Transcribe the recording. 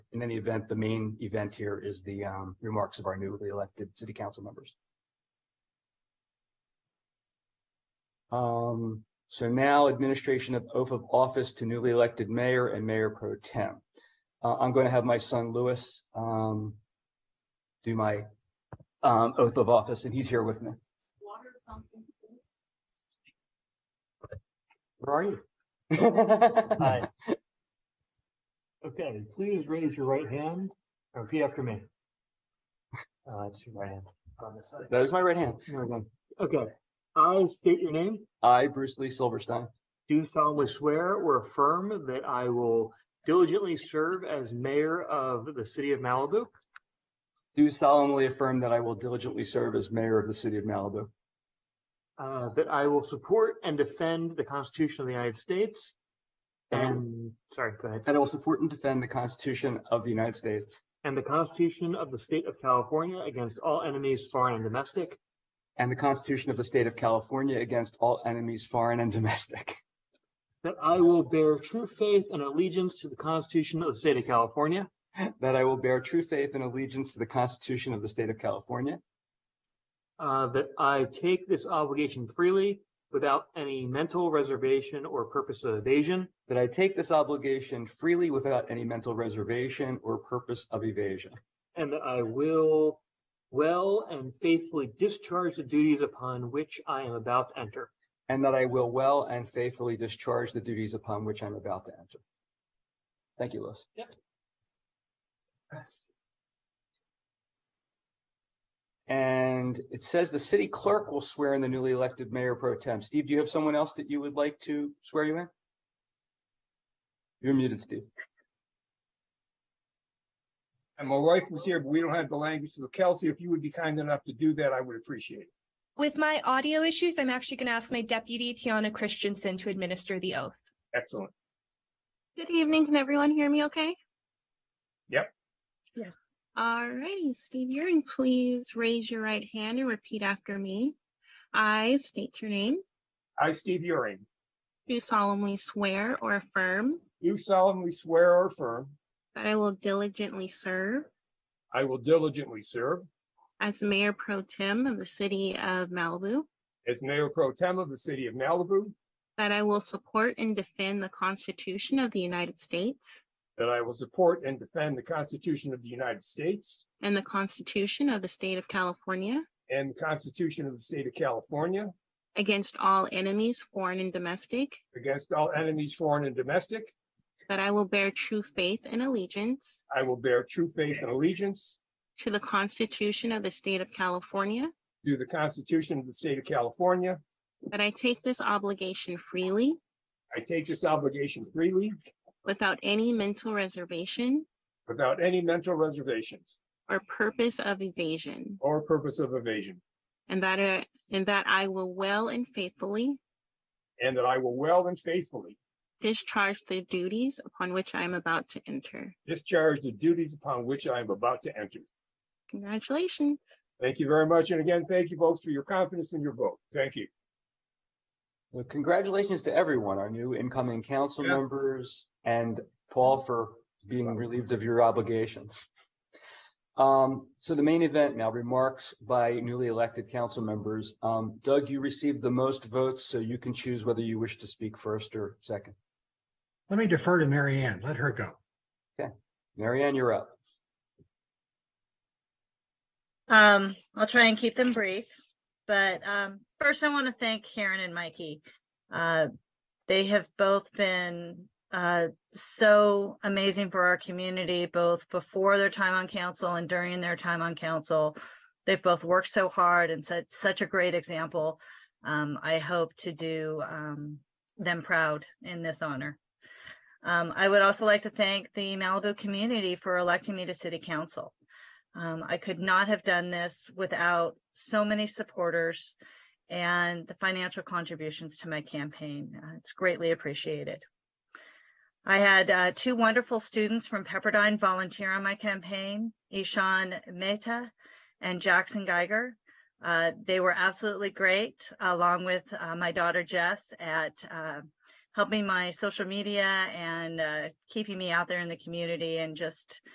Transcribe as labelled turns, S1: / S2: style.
S1: in any event, the main event here is the um, remarks of our newly elected city council members. Um, so now administration of oath of office to newly elected mayor and mayor pro tem. Uh, I'm going to have my son Louis um, do my um, oath of office, and he's here with me.
S2: water something.
S1: Where are you?
S3: Hi. Okay, please raise your right hand and repeat after me. Uh, it's your right hand on this side.
S1: That is my right hand.
S3: There we go. Okay, I state your name,
S1: I, Bruce Lee Silverstein,
S3: do solemnly swear or affirm that I will diligently serve as mayor of the city of Malibu,
S1: do solemnly affirm that I will diligently serve as mayor of the city of Malibu,
S3: uh, that I will support and defend the Constitution of the United States, and, sorry, go ahead,
S1: that I will support and defend the Constitution of the United States
S3: and the Constitution of the State of California against all enemies, foreign and domestic,
S1: and the Constitution of the state of California against all enemies, foreign and domestic,
S3: That I will bear true faith and allegiance to the Constitution of the State of California,
S1: that I will bear true faith and allegiance to the Constitution of the state of California,
S3: uh, that I take this obligation freely without any mental reservation or purpose of evasion,
S1: that I take this obligation freely without any mental reservation or purpose of evasion,
S3: and that I will well and faithfully discharge the duties upon which I am about to enter.
S1: and that I will well and faithfully discharge the duties upon which I'm about to enter. Thank you, Louis.
S3: Yep.
S1: And it says the city clerk will swear in the newly elected mayor pro tem. Steve, do you have someone else that you would like to swear you in? You're muted, Steve.
S4: And my wife was here, but we don't have the language. So Kelsey, if you would be kind enough to do that, I would appreciate it.
S5: With my audio issues, I'm actually going to ask my deputy, Tiana Christensen, to administer the oath.
S4: Excellent.
S2: Good evening. Can everyone hear me okay?
S4: Yep.
S2: Yes. All righty, Steve Euring, please raise your right hand and repeat after me. I state your name,
S4: I, Steve Uring,
S2: do solemnly swear or affirm
S4: do solemnly swear or affirm
S2: that I will diligently serve
S4: I will diligently serve
S2: as Mayor Pro Tem of the City of Malibu,
S4: as Mayor Pro Tem of the City of Malibu,
S2: that I will support and defend the Constitution of the United States
S4: that I will support and defend the Constitution of the United States
S2: and the Constitution of the State of California
S4: and the Constitution of the State of California
S2: against all enemies, foreign and domestic,
S4: against all enemies, foreign and domestic.
S2: That I will bear true faith and allegiance
S4: I will bear true faith and allegiance
S2: to the Constitution of the State of California.
S4: to the Constitution of the State of California.
S2: That I take this obligation freely
S4: I take this obligation freely
S2: without any mental reservation
S4: without any mental reservations
S2: or purpose of evasion.
S4: or purpose of evasion.
S2: And that, I- and that I will well and faithfully
S4: And that I will well and faithfully
S2: discharge the duties upon which I am about to enter.
S4: discharge the duties upon which I am about to enter.
S2: Congratulations.
S4: Thank you very much. And again, thank you folks for your confidence in your vote. Thank you.
S1: So congratulations to everyone, our new incoming council
S4: Yeah.
S1: members and Paul for being relieved of your obligations. Um, so the main event now, remarks by newly elected council members. Um, Doug, you received the most votes, so you can choose whether you wish to speak first or second.
S6: Let me defer to Mary Ann. Let her go.
S1: Mary Ann, you're up.
S7: Um, I'll try and keep them brief, but um, first I want to thank Karen and Mikey. Uh, they have both been uh, so amazing for our community, both before their time on council and during their time on council. They've both worked so hard and set such a great example. Um, I hope to do um, them proud in this honor. Um, I would also like to thank the Malibu community for electing me to city council. Um, I could not have done this without so many supporters and the financial contributions to my campaign. Uh, it's greatly appreciated. I had uh, two wonderful students from Pepperdine volunteer on my campaign, Ishan Mehta and Jackson Geiger. Uh, they were absolutely great, along with uh, my daughter Jess, at uh, helping my social media and uh, keeping me out there in the community and just